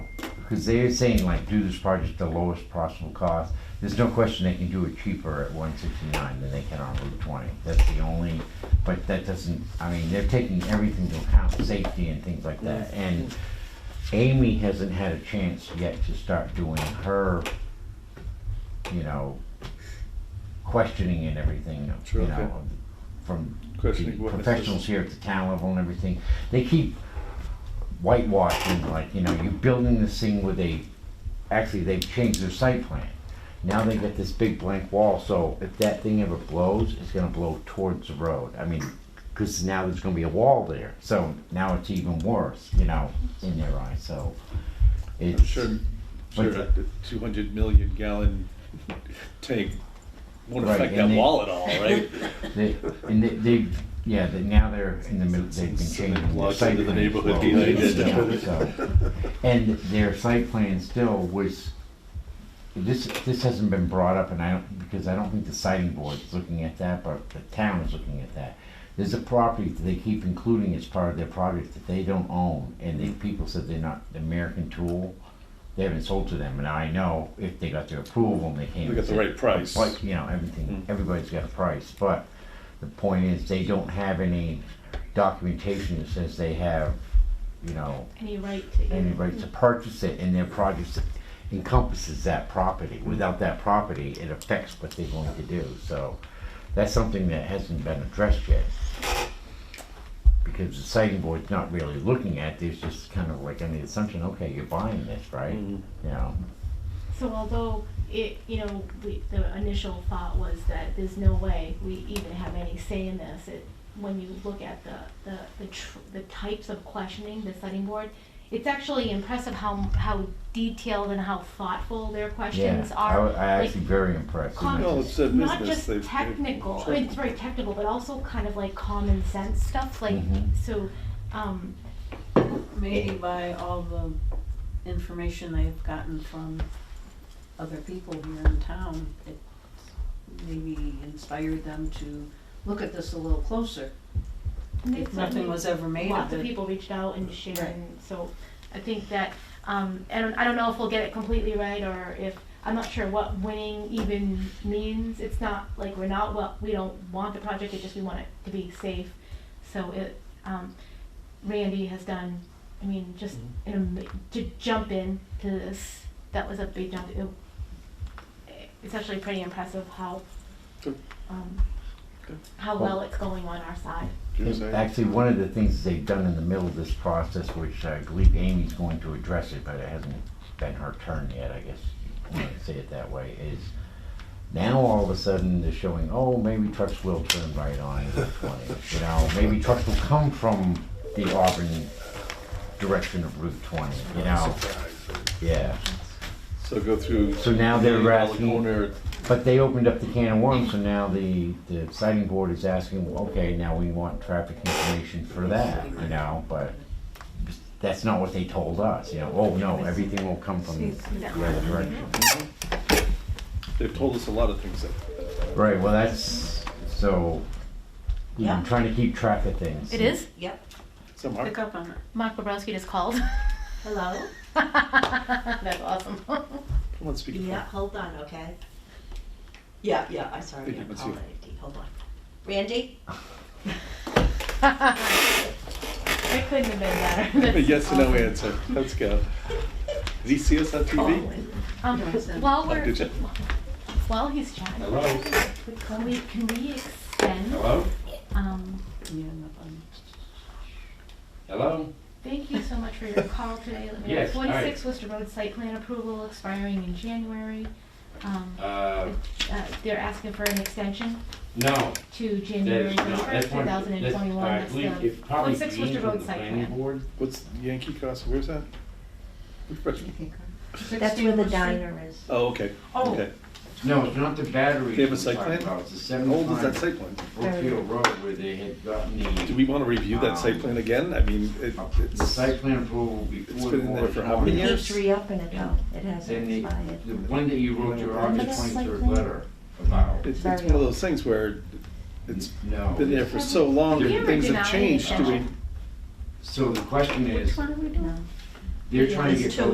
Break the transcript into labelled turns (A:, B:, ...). A: Because they're saying like do this project at the lowest possible cost. There's no question they can do it cheaper at one sixty-nine than they can on Route twenty. That's the only, but that doesn't, I mean, they're taking everything into account, safety and things like
B: Mm.
A: that. And Amy hasn't had a chance yet to start doing her, you know, questioning and everything,
B: Sure,
A: you
B: okay.
A: know, from
B: Questioning
A: the
B: what is this?
A: professionals here at the town level and everything. They keep whitewashing, like, you know, you're building this thing with a, actually, they've changed their site plan. Now they got this big blank wall, so if that thing ever blows, it's gonna blow towards the road. I mean, cause now there's gonna be a wall there, so now it's even worse, you know, in their eyes, so.
B: I'm
A: It's,
B: sure,
A: but
B: sure
A: the-
B: a two hundred million gallon tank won't
A: Right,
B: affect
A: and
B: that
A: they-
B: wall at all, right?
A: they, and they, they, yeah, they, now they're in the middle, they've been
B: So they
A: changing their
B: blocks
A: site
B: into the
A: plans
B: neighborhood
A: slowly,
B: behind it.
A: you know, so. And their site plan still was, this, this hasn't been brought up and I don't, because I don't think the siting board is looking at that, but the town is looking at that. There's a property that they keep including as part of their project that they don't own and the people said they're not, American Tool, they haven't sold to them and I know if they got their approval and they came.
B: They
A: and
B: got the
A: said,
B: right price. Mm-hmm.
A: like, you know, everything, everybody's got a price, but the point is, they don't have any documentation that says they have, you know,
C: Any right to either.
A: any right to purchase it, and their project encompasses that property. Without that property, it affects what they're going to do, so that's something that hasn't been addressed yet. Because the siting board's not really looking at, there's just kind of like on the assumption, okay, you're buying this, right? You know,
C: So although it, you know, we, the initial thought was that there's no way we even have any say in this. It, when you look at the, the, the, tr- the types of questioning, the study board, it's actually impressive how, how detailed and how thoughtful their
A: yeah,
C: questions
A: I,
C: are.
A: I
C: Like,
A: actually very impressed.
C: com-
B: No, it's their
C: Not
B: business.
C: just
B: They've- they've-
C: technical, I mean, it's very technical, but also kind of like common sense stuff, like,
A: Mhm.
C: so, um,
D: Maybe by all the information they've gotten from other people here in town, it maybe inspired them to look at this a little closer.
C: and they
D: If nothing
C: certainly-
D: was ever made
C: lots
D: of
C: of
D: it.
C: people reached out and shared,
D: Right.
C: and so I think that, um, I don't, I don't know if we'll get it completely right, or if, I'm not sure what winning even means, it's not, like, we're not, well, we don't want the project, it's just we want it to be safe, so it, um, Randy has done, I mean, just, an ama- to jump in to this, that was a big jump, It- it's actually pretty impressive how,
B: Good.
C: um,
B: Good.
C: how
A: Well-
C: well it's going on our side.
B: Do you know what I'm saying?
A: Actually, one of the things they've done in the middle of this process, which I believe Amy's going to address it, but it hasn't been her turn yet, I guess, you want to say it that way, is now all of a sudden they're showing, oh, maybe trucks will turn right on Route 20. You know, maybe trucks will come from the Auburn direction of Route 20, you know? Yeah,
B: So go through.
A: So now they're
B: the alley
A: asking-
B: corner,
A: but they opened up the can of worms, so now the, the sighting board is asking, well, okay, now we want traffic information for that, you know, but that's not what they told us, you know, oh, no, everything will come from the other direction.
B: They've told us a lot of things that
A: Right, well, that's, so, you know, I'm
D: Yeah.
A: trying to keep track of things.
C: It is?
D: Yep,
B: some
D: pick
B: are.
D: up on it.
C: Mark Bobrowski just called.
E: Hello?
C: That's awesome.
B: Come on, speak.
E: Yeah, hold on, okay? Yeah, yeah, I'm sorry,
B: Thank you,
E: I'm
B: let's
E: calling
B: see.
E: it, hold on. Randy?
C: It couldn't have been better.
B: A yes or no answer. Let's go. Did he see us on
E: Oh,
B: TV?
C: Um, while
B: Oh,
C: we're
B: did you?
C: while he's chatting, can we can we extend?
F: Hello?
C: Um,
D: Yeah, enough on
F: Hello?
C: thank you so much for your call today. Let me-
F: Yes, all right.
C: Forty-six Worcester Road site plan approval expiring in January. Um,
F: Uh,
C: uh, they're asking for an extension
F: no,
C: to
F: that's
C: January
F: no,
C: first,
F: that's
C: two
F: one,
C: thousand and
F: that's,
C: twenty-one.
F: I
C: That's
F: believe
C: the
F: it's probably
C: forty-six
F: Dean
C: Worcester
F: from
C: Road
F: the
C: site
F: planning
C: plan.
F: board.
B: What's Yankee Crossing? Where's that? Refresh me.
E: That's where the diner is.
B: Oh, okay.
D: Oh.
B: Okay.
A: No, it's not the battery.
B: They have a
A: we're
B: site
A: talking
B: plan?
A: about, It's the
B: How old is that
A: seventy-five
B: site plan?
A: Brookfield Road where they had gotten the.
B: Do we want to review that site
A: Um,
B: plan again? I mean, it-
A: The
B: it's,
A: site plan approval
B: It's
A: before the
B: been in there for how many
A: moratorium.
E: It
B: years?
E: keeps reopening it though, it hasn't
A: And the,
E: expired.
A: the one that you wrote your August
C: Remember that
A: twenty-third
C: site
A: letter about.
B: it's it's one of those things where it's
A: No.
B: been there for so long and things have changed. Do we,
A: So the question is,
C: Which one are we doing?
D: No.
A: they're trying to
E: It's
A: get
E: two.
A: those